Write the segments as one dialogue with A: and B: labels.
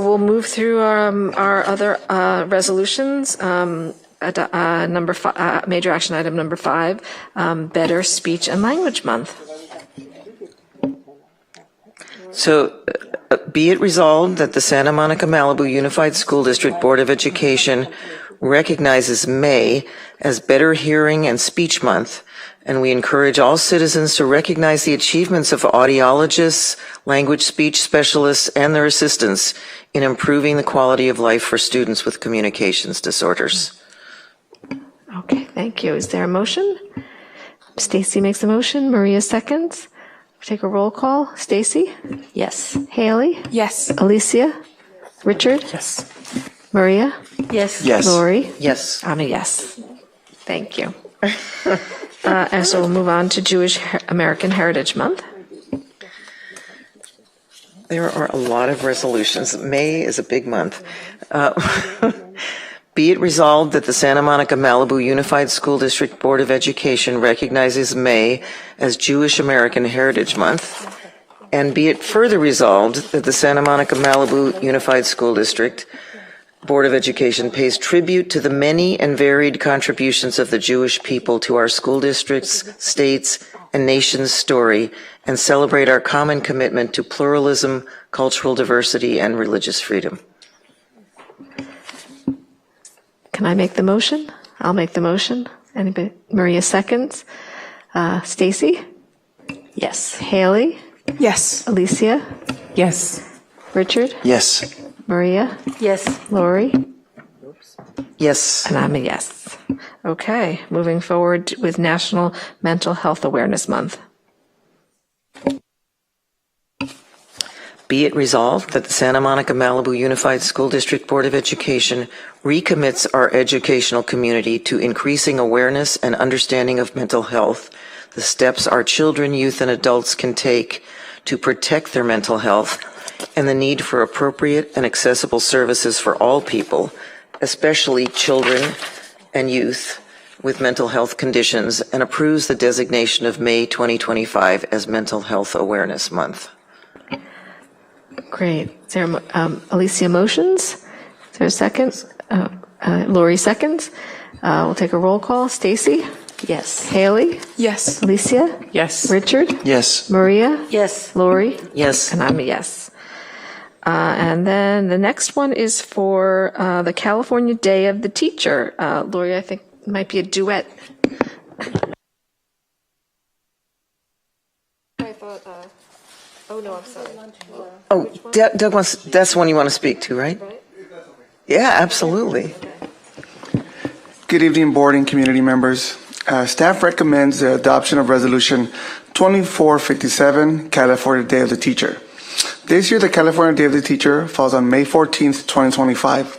A: we'll move through um, our other uh, resolutions. Um, ad- uh, Number, fi- uh, major action item number five, um, Better Speech and Language Month.
B: So uh, be it resolved that the Santa Monica Malibu Unified School District Board of Education recognizes May as Better Hearing and Speech Month, and we encourage all citizens to recognize the achievements of audiologists, language speech specialists, and their assistants in improving the quality of life for students with communications disorders.
A: Okay, thank you. Is there a motion? Stacy makes a motion, Maria seconds. Take a roll call. Stacy?
C: Yes.
A: Haley?
C: Yes.
A: Alicia? Richard?
C: Yes.
A: Maria?
C: Yes.
D: Yes.
A: Lori?
B: Yes.
A: I'm a yes. Thank you. Uh, And so we'll move on to Jewish Her- American Heritage Month.
B: There are a lot of resolutions. May is a big month. Uh, Be it resolved that the Santa Monica Malibu Unified School District Board of Education recognizes May as Jewish American Heritage Month. And be it further resolved that the Santa Monica Malibu Unified School District Board of Education pays tribute to the many and varied contributions of the Jewish people to our school districts, states, and nation's story and celebrate our common commitment to pluralism, cultural diversity, and religious freedom.
A: Can I make the motion? I'll make the motion. Anybody? Maria seconds. Uh, Stacy?
C: Yes.
A: Haley?
C: Yes.
A: Alicia?
C: Yes.
A: Richard?
D: Yes.
A: Maria?
C: Yes.
A: Lori?
B: Yes,
A: And I'm a yes. Okay, moving forward with National Mental Health Awareness Month.
B: be it resolved that the Santa Monica Malibu Unified School District Board of Education recommits our educational community to increasing awareness and understanding of mental health, the steps our children, youth, and adults can take to protect their mental health, and the need for appropriate and accessible services for all people, especially children and youth with mental health conditions, and approves the designation of May 2025 as Mental Health Awareness Month.
A: Great. Is there, a mo- um, Alicia motions? Is there a second? Uh, uh, Lori seconds. Uh, we'll take a roll call. Stacy?
C: Yes.
A: Haley?
C: Yes.
A: Alicia?
C: Yes.
A: Richard?
D: Yes.
A: Maria?
C: Yes.
A: Lori?
B: Yes.
A: And I'm a yes. Uh, and then the next one is for uh, the California Day of the Teacher. Uh, Lori, I think might be a duet.
B: Oh, Doug Doug wants, that's the one you want to speak to, right? Yeah, absolutely.
E: Good evening, board and community members. Uh, Staff recommends the adoption of Resolution 2457, California Day of the Teacher. This year, the California Day of the Teacher falls on May 14th, 2025.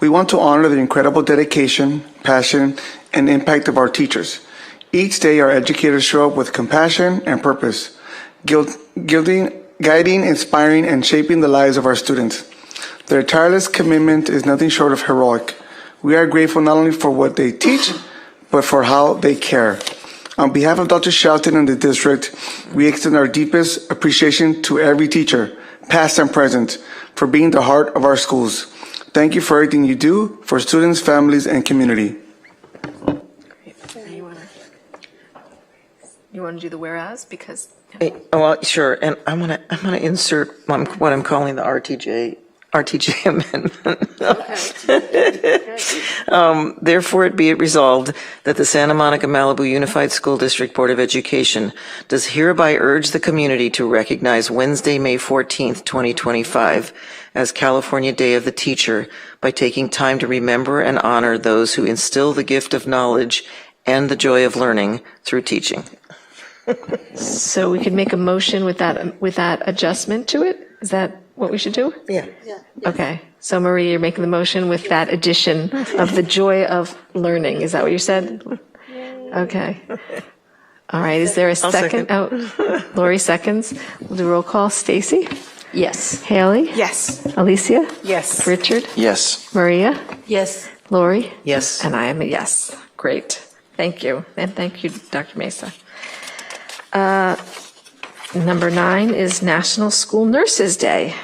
E: We want to honor the incredible dedication, passion, and impact of our teachers. Each day, our educators show up with compassion and purpose, guil- guiding, guiding, inspiring, and shaping the lives of our students. Their tireless commitment is nothing short of heroic. We are grateful not only for what they teach, but for how they care. On behalf of Dr. Shelton and the district, we extend our deepest appreciation to every teacher, past and present, for being the heart of our schools. Thank you for everything you do for students, families, and community.
A: You want to do the whereas? Because
B: Eh, oh, Well, sure, and I'm going to, I'm going to insert what I'm- what I'm calling the RTJ, RTJ amendment. Um, Therefore, it be it resolved that the Santa Monica Malibu Unified School District Board of Education does hereby urge the community to recognize Wednesday, May 14th, 2025, as California Day of the Teacher by taking time to remember and honor those who instill the gift of knowledge and the joy of learning through teaching.
A: So we could make a motion with that, with that adjustment to it? Is that what we should do?
B: Yeah.
A: Okay. So Maria, you're making the motion with that addition of the joy of learning. Is that what you said? Okay. All right. Is there a second?
B: second.
A: Oh, Lori seconds. We'll do roll call. Stacy?
C: Yes.
A: Haley?
C: Yes.
A: Alicia?
C: Yes.
A: Richard?
D: Yes.
A: Maria?
C: Yes.
A: Lori?
B: Yes.
A: And I am a yes. Great. Thank you. And thank you, Dr. Mesa. Uh, Number nine is National School Nurses Day.